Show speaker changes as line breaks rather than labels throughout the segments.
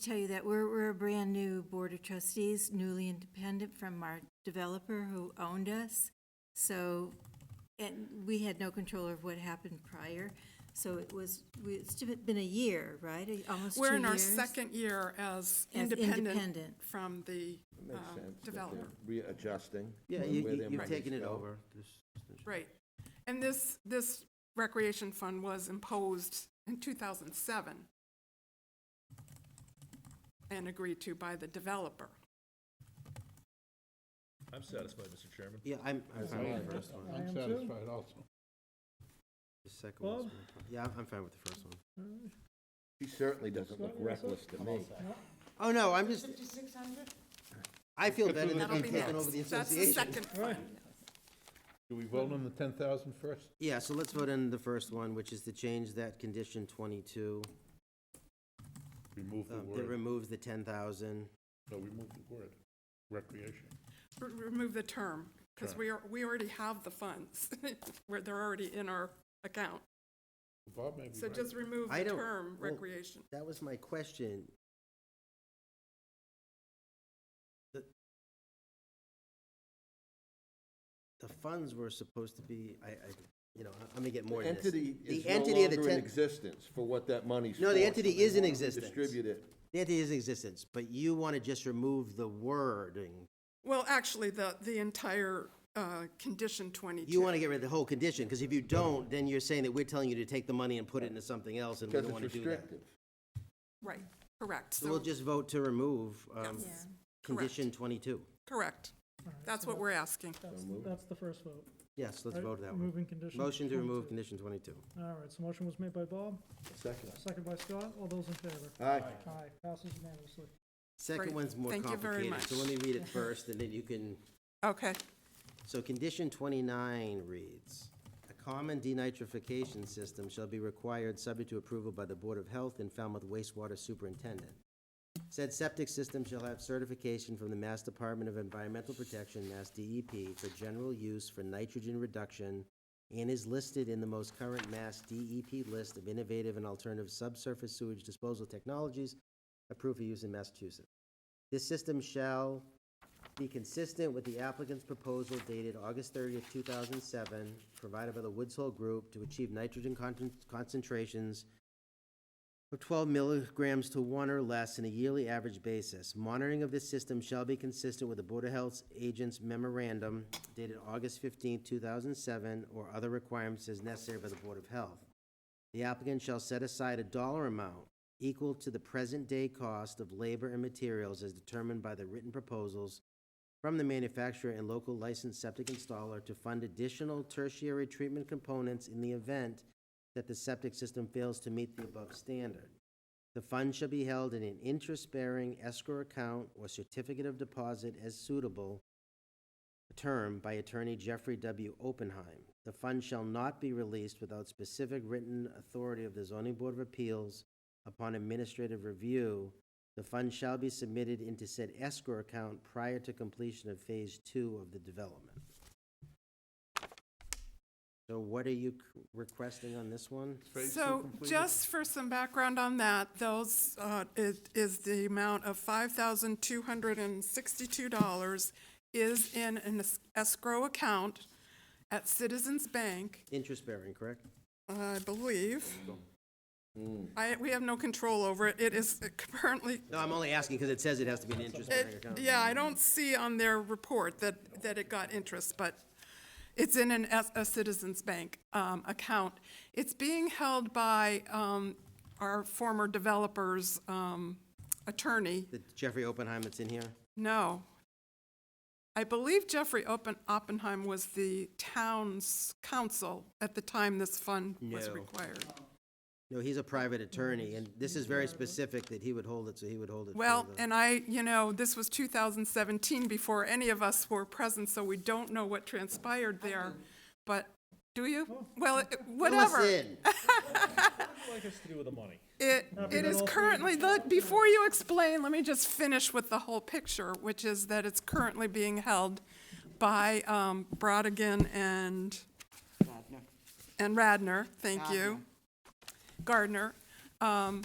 tell you that we're, we're a brand-new board of trustees, newly independent from our developer who owned us. So, and we had no control of what happened prior, so it was, we- it's been a year, right? Almost two years?
We're in our second year as
As
independent
independent.
from the
Makes
uh,
sense. that they're
developer.
Readjusting.
Yeah,
where
you,
their
you- you've
monies
taken it
go.
over. This- this-
Right. And this, this recreation fund was imposed in 2007 and agreed to by the developer.
I'm satisfied, Mr. Chairman.
Yeah, I'm, I'm fine with the first one.
I am too.
satisfied also.
The second one's more fun. Yeah, I'm- I'm fine with the first one.
She certainly doesn't look reckless to me.
Oh, no, I'm just,
Fifty-six hundred?
I feel better than
That'll be
being taken over
next.
the
That's the
association.
second fund.
Do we vote on the 10,000 first?
Yeah, so let's vote on the first one, which is to change that condition twenty-two.
Remove the
um, That
word,
removes the ten thousand.
no, remove the word, recreation.
R- Remove the term, because
Sure.
we are, we already have the funds. We're, they're already in our account.
Bob may be
So
right.
just remove
I
the
don't-
term
well-
recreation.
That was my question. The the funds were supposed to be, I, I, you know, I'm gonna get more into this.
Entity
The
is no
entity of the
longer in
ten-
existence for what that money's for.
No, the
so
entity
they
is in
want to
existence.
Distribute it.
The entity is in existence, but you want to just remove the wording.
Well, actually, the, the entire uh, condition 22.
You want to get rid of the whole condition, because if you don't, then you're saying that we're telling you to take the money and put it into something else, and we
Because it's
don't want to do that.
restrictive.
Right, correct.
So we'll
So-
just vote to remove, um,
Yes.
Yeah.
condition twenty-two.
Correct. That's what we're asking.
That's, that's the first vote.
Yes, let's
right?
vote that one.
Removing condition.
Motion to remove
22.
condition twenty-two.
All right, so motion was made by Bob,
Second.
second by Scott. All those in favor?
Aye.
Aye, passes unanimously.
Second
Great.
one's more
Thank you very
complicated, so let me read it first, and then you can
Okay.
So condition twenty-nine reads, "A common denitrification system shall be required subject to approval by the Board of Health and Falmouth wastewater superintendent. Said septic system shall have certification from the Mass Department of Environmental Protection, Mass DEP, for general use for nitrogen reduction and is listed in the most current Mass DEP list of innovative and alternative subsurface sewage disposal technologies approved for use in Massachusetts. This system shall be consistent with the applicant's proposal dated August thirtieth, two thousand seven, provided by the Woods Hole Group to achieve nitrogen con- concentrations of twelve milligrams to one or less in a yearly average basis. Monitoring of this system shall be consistent with the Board of Health Agent's memorandum dated August fifteenth, two thousand seven, or other requirements as necessary by the Board of Health. The applicant shall set aside a dollar amount equal to the present-day cost of labor and materials as determined by the written proposals from the manufacturer and local licensed septic installer to fund additional tertiary treatment components in the event that the septic system fails to meet the above standard. The fund shall be held in an interest-bearing escrow account or certificate of deposit as suitable term by attorney Jeffrey W. Oppenheim. The fund shall not be released without specific written authority of the zoning board of appeals upon administrative review. The fund shall be submitted into said escrow account prior to completion of phase two of the development. So what are you c- requesting on this one?
Phase two
So
completed?
just for some background on that, those, uh, it is the amount of $5,262 is in an es- escrow account at Citizens Bank,
Interest-bearing, correct?
I believe.
Hmm.
I, we have no control over it. It is currently,
No, I'm only asking because it says it has to be an interest-bearing
it,
account.
yeah, I don't see on their report that, that it got interest, but it's in an, S- a Citizens Bank um, account. It's being held by um, our former developer's um, attorney.
The Jeffrey Oppenheim that's in here?
No. I believe Jeffrey Oppen- Oppenheim was the town's counsel at the time this fund was
No.
required.
No, he's a private attorney, and this is very specific that he would hold it, so he would hold it. for
Well,
the-
and I, you know, this was 2017 before any of us were present, so we don't know what transpired there. But, do you? Well, it-
Fill us
whatever.
in.
What has to do with the money?
It, it is currently, the- before you explain, let me just finish with the whole picture, which is that it's currently being held by um, Brodigan and, and Radner, thank you. Gardner. Um,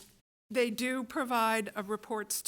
They do provide uh, reports